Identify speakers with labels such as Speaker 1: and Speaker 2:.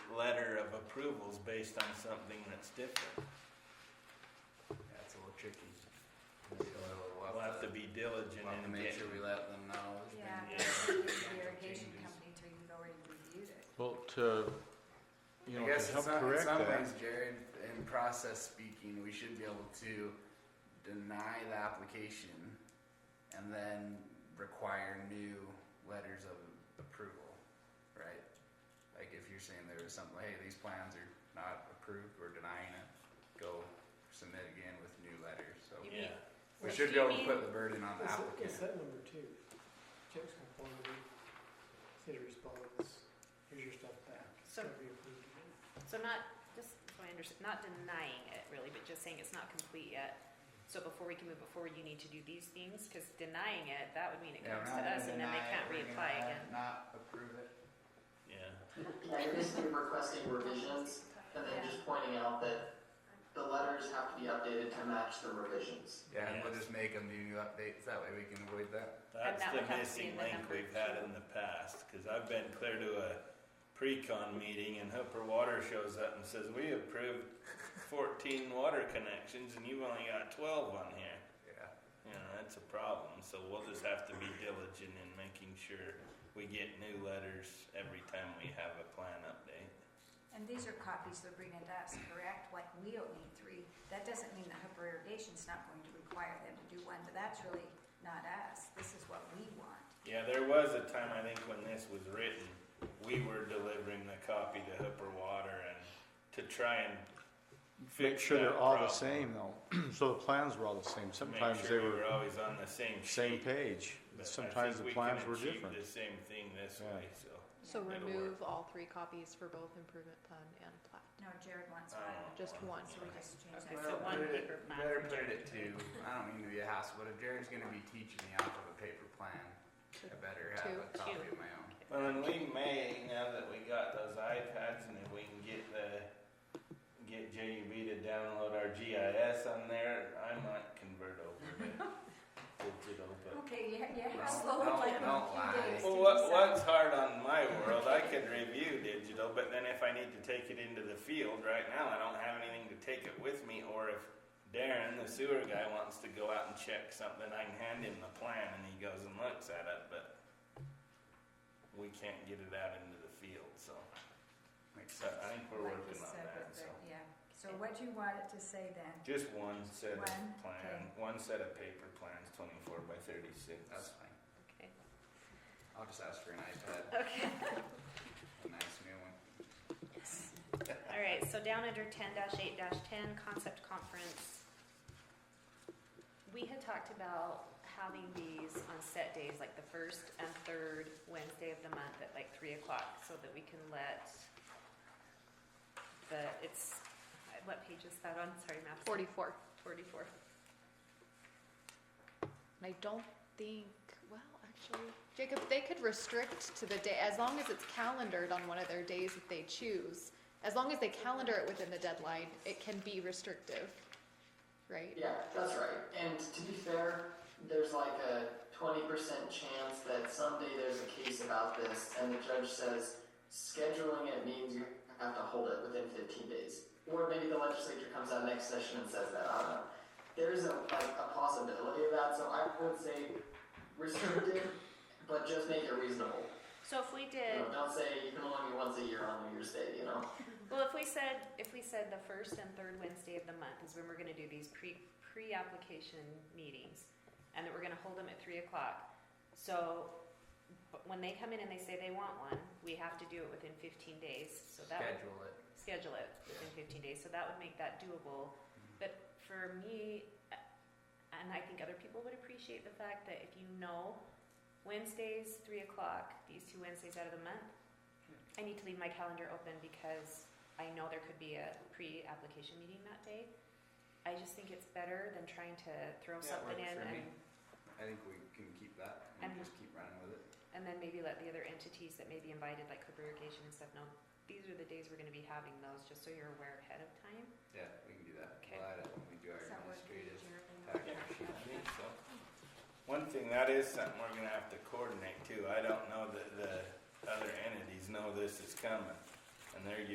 Speaker 1: letter of approvals based on something that's different.
Speaker 2: That's a little tricky. Maybe We'll
Speaker 1: We'll have to be diligent
Speaker 2: we'll have to
Speaker 1: in
Speaker 2: make
Speaker 1: getting.
Speaker 2: sure we let them know. there's been-
Speaker 3: Yeah,
Speaker 1: Yeah.
Speaker 3: that's the irrigation company too, you've already reviewed it.
Speaker 4: Well, to, you
Speaker 2: I
Speaker 4: know,
Speaker 2: guess
Speaker 4: to
Speaker 2: in
Speaker 4: help
Speaker 2: some, in
Speaker 4: correct
Speaker 2: some
Speaker 4: that,
Speaker 2: ways, Jared, in process speaking, we should be able to deny the application and then require new letters of approval, right? Like if you're saying there was something, hey, these plans are not approved, we're denying it, go submit again with new letters, so.
Speaker 5: You
Speaker 1: Yeah,
Speaker 5: mean-
Speaker 2: We
Speaker 5: Like,
Speaker 2: should be
Speaker 5: you
Speaker 2: able to
Speaker 5: mean-
Speaker 2: put the burden on the
Speaker 6: It's,
Speaker 2: applicant.
Speaker 6: it's that number two. Checks conformity, city responds, here's your stuff back.
Speaker 5: So-
Speaker 6: Gotta be approved again.
Speaker 5: So not, just so I understand, not denying it really, but just saying it's not complete yet. So before we can move it forward, you need to do these things, cause denying it, that would mean it
Speaker 2: Yeah, we're not
Speaker 5: comes to
Speaker 2: gonna
Speaker 5: us and then they
Speaker 2: deny it,
Speaker 5: can't
Speaker 2: we're gonna
Speaker 5: reapply again.
Speaker 2: Not approve it.
Speaker 1: yeah.
Speaker 7: Yeah, you're just requesting revisions and then just pointing out that the letters have to be updated to match the revisions.
Speaker 2: Yeah, and we'll
Speaker 1: Yes.
Speaker 2: just make them do new updates, that way we can avoid that.
Speaker 1: That's
Speaker 5: that would
Speaker 1: the
Speaker 5: have to be
Speaker 1: missing
Speaker 5: in the
Speaker 1: link
Speaker 5: number
Speaker 1: we've had
Speaker 5: two.
Speaker 1: in the past, cause I've been clear to a pre-con meeting and Hooper Water shows up and says, we approved fourteen water connections and you've only got twelve on here.
Speaker 2: Yeah.
Speaker 1: You know, that's a problem, so we'll just have to be diligent in making sure we get new letters every time we have a plan update.
Speaker 3: And these are copies they're bringing to us, correct? Like, we don't need three. That doesn't mean that Hooper Irrigation's not going to require them to do one, but that's really not us. This is what we want.
Speaker 1: Yeah, there was a time, I think, when this was written, we were delivering the copy to Hooper Water and to try and
Speaker 4: make
Speaker 1: fix
Speaker 4: sure
Speaker 1: that
Speaker 4: they're all the
Speaker 1: problem.
Speaker 4: same though. So the plans were all the same.
Speaker 1: Make
Speaker 4: Sometimes
Speaker 1: sure we
Speaker 4: they were
Speaker 1: always on the same sheet,
Speaker 4: same page.
Speaker 1: but I
Speaker 4: Sometimes
Speaker 1: think we
Speaker 4: the plans
Speaker 1: can
Speaker 4: were
Speaker 1: achieve
Speaker 4: different.
Speaker 1: The same thing this
Speaker 4: Yeah.
Speaker 1: way, so.
Speaker 8: So
Speaker 1: It'll work.
Speaker 8: remove all three copies for both improvement plan and plat,
Speaker 3: No, Jared wants
Speaker 1: I don't
Speaker 3: one.
Speaker 1: want
Speaker 8: just one.
Speaker 3: So we just change
Speaker 5: Okay,
Speaker 3: that.
Speaker 5: so
Speaker 2: Well,
Speaker 5: one
Speaker 2: put it-
Speaker 5: paper plan
Speaker 2: Better
Speaker 5: for
Speaker 2: put it
Speaker 5: Jared.
Speaker 2: at two, I don't mean to be a hassle, but if Jared's gonna be teaching me off of a paper plan, I better have a
Speaker 8: Two.
Speaker 2: copy of
Speaker 5: Two.
Speaker 2: my own.
Speaker 1: Well, and we may, now that we got those iPads and if we can get the, get JUB to download our GIS on there, I might convert over to digital, but.
Speaker 3: Okay, yeah, yeah,
Speaker 2: Don't-
Speaker 3: how slow,
Speaker 2: don't-
Speaker 3: like,
Speaker 2: don't
Speaker 3: a
Speaker 2: lie.
Speaker 3: few days to
Speaker 1: Well, what,
Speaker 3: decide.
Speaker 1: what's hard on my world, I could review digital, but then if I need to take it into the field, right now, I don't have anything to take it with me, or if Darren, the sewer guy, wants to go out and check something, I can hand him the plan and he goes and looks at it, but we can't get it out into the field, so.
Speaker 2: Makes
Speaker 1: So I
Speaker 2: sense.
Speaker 1: think we're
Speaker 3: Like you
Speaker 1: working on
Speaker 3: said
Speaker 1: that,
Speaker 3: with
Speaker 1: so.
Speaker 3: the- Yeah, so what do you want it to say then?
Speaker 1: Just one set of
Speaker 3: One,
Speaker 1: plan, one set of paper plans, twenty-four by thirty-six.
Speaker 2: That's fine,
Speaker 5: Okay.
Speaker 2: I'll just ask for an iPad,
Speaker 5: Okay,
Speaker 2: a nice new one.
Speaker 5: all right, so down under ten eight ten, concept conference. We had talked about having these on set days, like the first and third Wednesday of the month at like three o'clock, so that we can let the, it's, what page is that on? Sorry, math.
Speaker 8: Forty-four.
Speaker 5: Forty-four.
Speaker 8: And I don't think, well, actually, Jacob, they could restrict to the day, as long as it's calendared on one of their days that they choose. As long as they calendar it within the deadline, it can be restrictive, right?
Speaker 7: Yeah, that's right. And to be fair, there's like a 20% chance that someday there's a case about this and the judge says scheduling it means you have to hold it within 15 days. Or maybe the legislature comes out next session and says that. I don't know. There is a, like, a possibility of that, so I would say restricted, but just make it reasonable.
Speaker 5: So if we
Speaker 7: You
Speaker 5: did,
Speaker 7: know, don't say you can only meet once a year on New Year's Day, you know?
Speaker 5: well, if we said, if we said the first and third Wednesday of the month is when we're gonna do these pre, pre-application meetings, and that we're gonna hold them at three o'clock, so, but when they come in and they say they want one, we have to do it within fifteen days, so that would
Speaker 2: Schedule it.
Speaker 5: schedule it within fifteen days, so that would make that doable. But for me, uh, and I think other people would appreciate the fact that if you know Wednesdays, three o'clock, these two Wednesdays out of the month, I need to leave my calendar open because I know there could be a pre-application meeting that day. I just think it's better than trying to
Speaker 2: Yeah,
Speaker 5: throw
Speaker 2: it
Speaker 5: something
Speaker 2: works
Speaker 5: in
Speaker 2: for me.
Speaker 5: and,
Speaker 2: I think we can keep that and
Speaker 5: And-
Speaker 2: just keep running with it.
Speaker 5: and then maybe let the other entities that may be invited, like Cooper Irrigation and stuff, know, these are the days we're gonna be having those, just so you're aware ahead of time.
Speaker 2: Yeah, we can do that.
Speaker 5: Okay.
Speaker 2: We'll add it when we do our
Speaker 3: Does that work for you,
Speaker 2: administrative
Speaker 3: Jared?
Speaker 2: package.
Speaker 1: I think so. One thing, that is something we're gonna have to coordinate too. I don't know that the other entities know this is coming. And they're